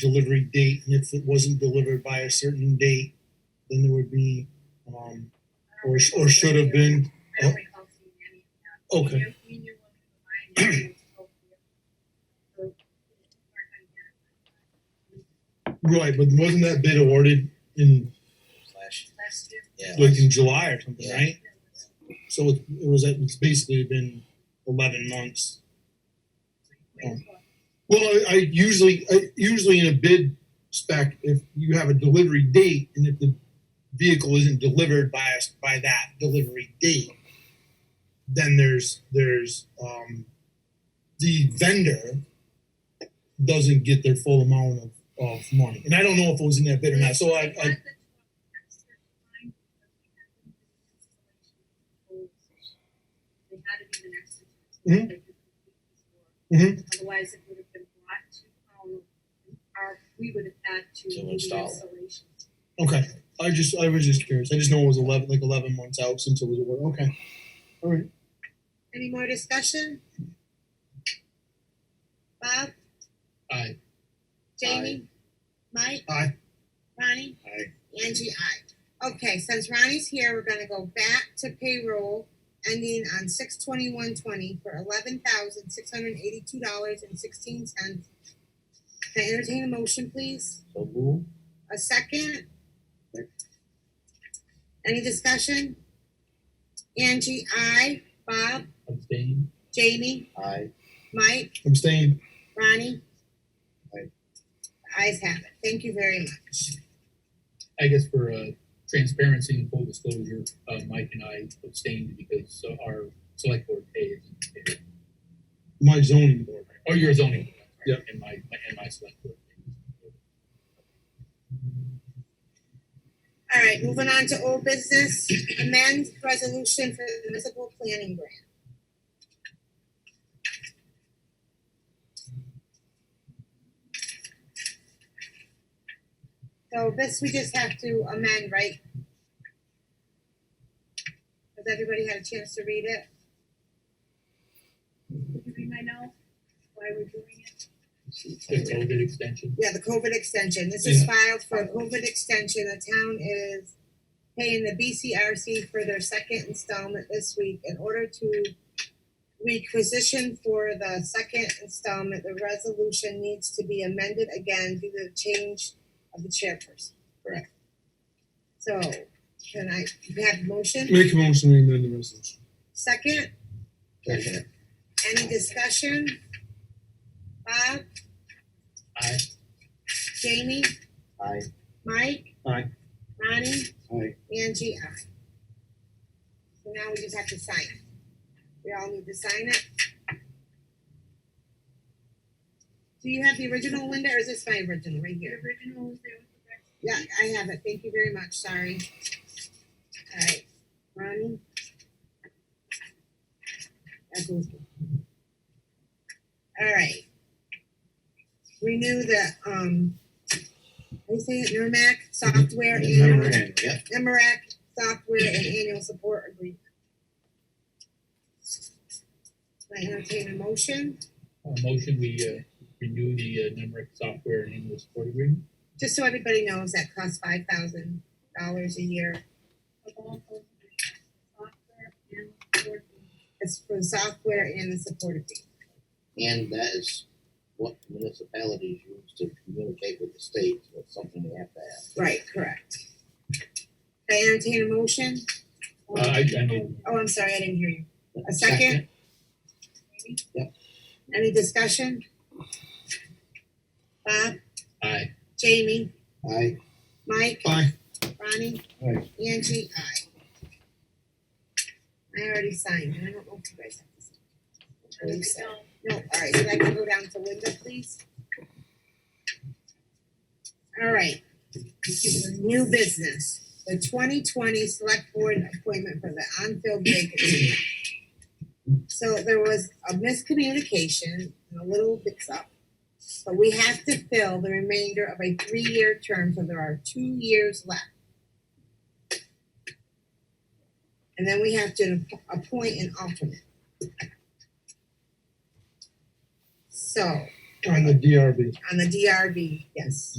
delivery date, and if it wasn't delivered by a certain date, then there would be, um, or, sh- or should have been, oh, I don't recall seeing any of Okay. that. Me and- me and your woman combined, it was both of you. So, right, but wasn't that bid awarded in, Flash. Last year. Yeah. like in July or something, Yeah. right? So it, it was, it's basically been eleven months. Well, I, I usually, I, usually in a bid spec, if you have a delivery date and if the vehicle isn't delivered by us by that delivery date, then there's there's um, the vendor doesn't get their full amount of, of money, and I don't know if it was in that bid or not. So I, I They had to be the next. Mhm. Mhm. Otherwise, it would have been brought to, um, our, we would have had to. To do the install. installation. okay, I just I was just curious. I just know it was eleven like eleven months out since it was awarded. Okay, all right. Any more discussion? Bob, Aye. Jamie, Mike? Aye. Ronnie? Aye. Angie, aye. Okay, since Ronnie's here, we're gonna go back to payroll ending on six twenty-one twenty for eleven thousand six hundred and eighty-two dollars and sixteen cents. Can I entertain a motion, please? So move. A second? Any discussion? Angie, aye. Bob, Abstain. Jamie, Aye. Mike? Abstain. Ronnie? Aye. The ayes have it. Thank you very much. I guess for uh, transparency and full disclosure, uh, Mike and I abstained because uh, our select board pay is. My zoning board. Oh, your zoning. Yeah. And my, my- and my select board. All right, moving on to old business, amend resolution for the municipal planning grant. So this we just have to amend, right? Has everybody had a chance to read it? Would you be my know why we're doing it? The COVID extension. Yeah, the COVID extension. This is Yeah. filed for a COVID extension. The town is paying the BCRC for their second installment this week in order to requisition for the second installment. The resolution needs to be amended again due to the change of the chairperson. Correct. So can I, you have a motion? Make a motion to amend the resolution. Second, Second. any discussion? Bob, I, Jamie, Aye. Mike? Aye. Ronnie? Aye. Angie, aye. So now we just have to sign it. We all need to sign it. Do you have the original, Linda, or is this my original right The here? original was there with the rest. Yeah, I have it. Thank you very much. Sorry. All right, Ronnie? That goes. All right. Renew the, um, how you say it, E Merrimack software E annual. Yep. MRAC software and annual support agreement. Can I entertain a motion, uh, motion, we uh, renew the uh, NEMRIC software and annual support agreement. just so everybody knows that costs five thousand dollars a year. of all those divisions, software and board meetings. It's for the software and the support agreement. And that is what municipalities use to communicate with the state, so it's something we have to have. Right, correct. Can I entertain a motion? Uh, I, I mean. Oh, I'm sorry, I didn't hear you. A second? Yep. Any discussion? Bob, I, Jamie, Aye. Mike? Aye. Ronnie? Aye. Angie, aye. I already signed, and I don't know if you guys have this. I think so. No, all right, so I can go down to Linda, please? All right. New business, the twenty twenty select board appointment for the unfilled vacancy. So there was a miscommunication and a little mix up. But we have to fill the remainder of a three-year term, so there are two years left. And then we have to app- appoint an alternate. So, on the DRB. on the DRB, yes.